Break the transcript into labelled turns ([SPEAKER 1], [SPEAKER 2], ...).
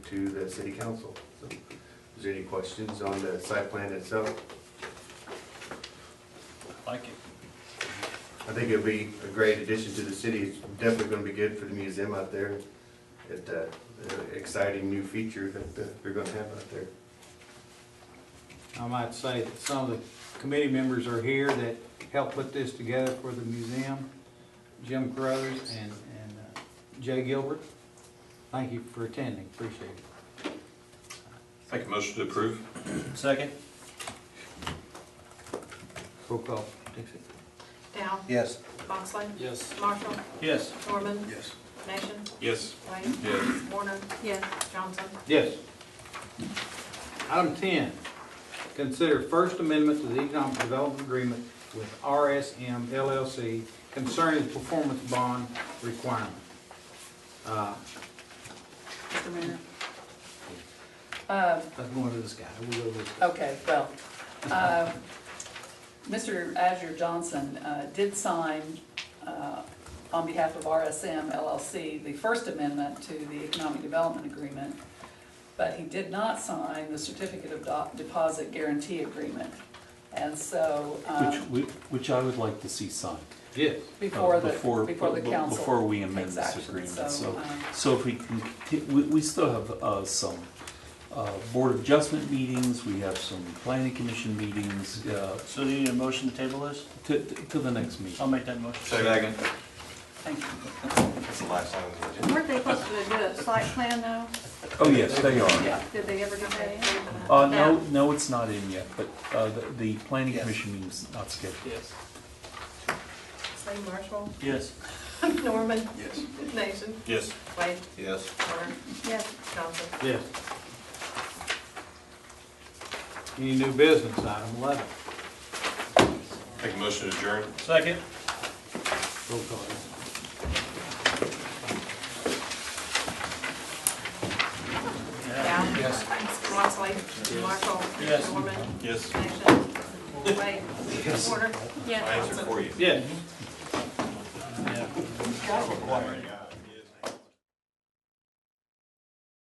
[SPEAKER 1] to the city council. So, Is there any questions on the site plan itself?
[SPEAKER 2] Like it.
[SPEAKER 1] I think it'd be a great addition to the city. It's definitely gonna be good for the museum out there. It, uh, an exciting new feature that uh, they're gonna have out there.
[SPEAKER 3] I might say that some of the committee members are here that helped put this together for the museum. Jim Carruthers and, and uh, Jay Gilbert. Thank you for attending, appreciate it.
[SPEAKER 4] Make a motion to approve?
[SPEAKER 2] Second?
[SPEAKER 3] Roll call, Dixie.
[SPEAKER 5] Dow.
[SPEAKER 6] Yes.
[SPEAKER 5] Moxley.
[SPEAKER 2] Yes.
[SPEAKER 5] Marshall.
[SPEAKER 2] Yes.
[SPEAKER 5] Norman.
[SPEAKER 6] Yes.
[SPEAKER 5] Nation.
[SPEAKER 4] Yes.
[SPEAKER 5] Wade.
[SPEAKER 4] Yes.
[SPEAKER 5] Warner.
[SPEAKER 7] Yes.
[SPEAKER 5] Johnson.
[SPEAKER 3] Yes. Item ten, consider first amendment to the economic development agreement with RSM LLC concerning the performance bond requirement. Uh,
[SPEAKER 7] Mr. Mayor. Um,
[SPEAKER 3] Let's go over this guy, we'll go over this guy.
[SPEAKER 7] Okay, well, uh, Mr. Azure Johnson uh, did sign uh, on behalf of RSM LLC, the First Amendment to the Economic Development Agreement, but he did not sign the Certificate of Do- Deposit Guarantee Agreement. And so, um,
[SPEAKER 8] Which, we- which I would like to see signed.
[SPEAKER 3] Yes.
[SPEAKER 7] before the,
[SPEAKER 8] before-
[SPEAKER 7] before the
[SPEAKER 8] be-
[SPEAKER 7] council.
[SPEAKER 8] Before we amend
[SPEAKER 7] takes
[SPEAKER 8] this
[SPEAKER 7] action.
[SPEAKER 8] agreement, so,
[SPEAKER 7] um,
[SPEAKER 8] so if we can, conti- we, we still have, uh, some, uh, board adjustment meetings, we have some planning commission meetings, uh,
[SPEAKER 2] So do you need a motion to table this?
[SPEAKER 8] to, to to the next meeting.
[SPEAKER 2] I'll make that motion.
[SPEAKER 4] Second.
[SPEAKER 7] Thank you.
[SPEAKER 1] That's the last time we did it.
[SPEAKER 7] Weren't they supposed to do a site plan though?
[SPEAKER 8] Oh, yes, they are.
[SPEAKER 7] Yeah. Did they ever do that?
[SPEAKER 8] Uh, no, no, it's not in yet, but, uh, the, the planning
[SPEAKER 6] Yes.
[SPEAKER 8] commission meeting's not scheduled.
[SPEAKER 2] Yes.
[SPEAKER 5] Say Marshall.
[SPEAKER 2] Yes.
[SPEAKER 5] Norman.
[SPEAKER 6] Yes.
[SPEAKER 5] Nation.
[SPEAKER 4] Yes.
[SPEAKER 5] Wade.
[SPEAKER 6] Yes.
[SPEAKER 5] Warner.
[SPEAKER 7] Yes.
[SPEAKER 5] Johnson.
[SPEAKER 3] Yes. Any new business, item eleven,
[SPEAKER 4] Make a motion to adjourn?
[SPEAKER 2] Second?
[SPEAKER 3] roll call.
[SPEAKER 5] Dow.
[SPEAKER 6] Yes.
[SPEAKER 5] Moxley. Marshall.
[SPEAKER 2] Yes.
[SPEAKER 5] Norman.
[SPEAKER 4] Yes.
[SPEAKER 5] Nation. Wade. Warner.
[SPEAKER 4] My answer for you.
[SPEAKER 3] Yes.
[SPEAKER 2] Yeah.